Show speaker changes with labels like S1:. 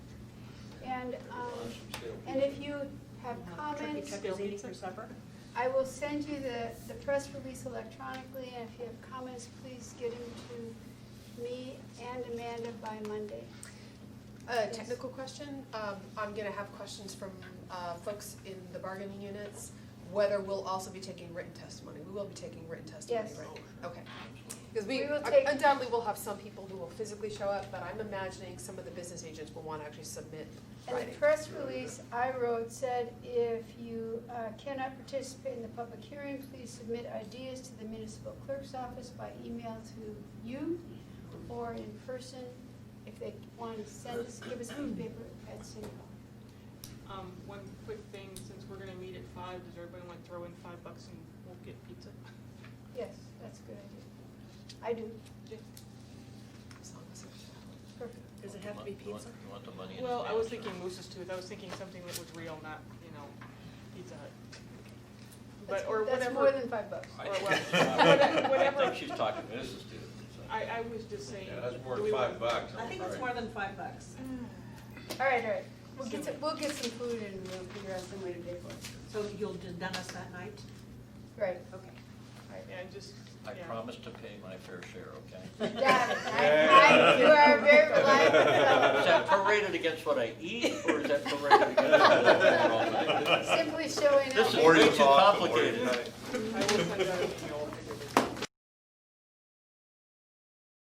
S1: And, um, and if you have comments,
S2: Chuck is eating for supper?
S1: I will send you the, the press release electronically, and if you have comments, please get them to me and Amanda by Monday.
S3: A Uh, technical question, um, I'm gonna have questions from, uh, folks in the bargaining units, whether we'll also be taking written testimony, we will be taking written testimony,
S1: Yes.
S3: right? Okay, cause we,
S1: We will take-
S3: undoubtedly will have some people who will physically show up, but I'm imagining some of the business agents will wanna actually submit
S1: And the
S3: writing.
S1: press release I wrote said, if you uh, cannot participate in the public hearing, please submit ideas to the municipal clerk's office by email to you or in person, if they want to send us, give us a paper at City Hall.
S4: Um, one quick thing, since we're gonna meet at five, does everybody want to throw in five bucks and we'll get pizza?
S1: Yes, that's a good idea. I do,
S3: As long as it's-
S1: perfect.
S2: Does it have to be
S5: You want-
S2: pizza?
S5: You want the money in
S4: Well,
S5: his
S4: I was
S5: hands,
S4: thinking
S5: or-
S4: Moose's Tooth, I was thinking something that was real, not, you know, Pizza Hut.
S1: That's-
S4: But, or
S1: That's more
S4: whatever,
S1: than five bucks.
S5: I
S4: or
S5: think-
S4: whatever-
S5: I
S4: whatever.
S5: think she's talking business to it. so.
S4: I, I was just saying.
S6: Yeah, that's more
S4: do
S6: than
S4: we
S6: five
S4: want-
S6: bucks.
S2: I think it's more than five bucks.
S1: All right, all right. We'll get some, we'll get some food and we'll figure out some way to pay for it.
S2: So you'll do Dennis that night?
S1: Right.
S2: Okay.
S4: Yeah, just,
S5: I
S4: yeah.
S5: promise to pay my fair share, okay?
S1: Got it. I- I- You are very
S5: Is
S1: reliable.
S5: that prorated against what I eat, or is that prorated against? what I do?
S1: Simply showing
S5: This
S1: up.
S5: is
S1: and-
S5: way too complicated.
S4: I will send out an email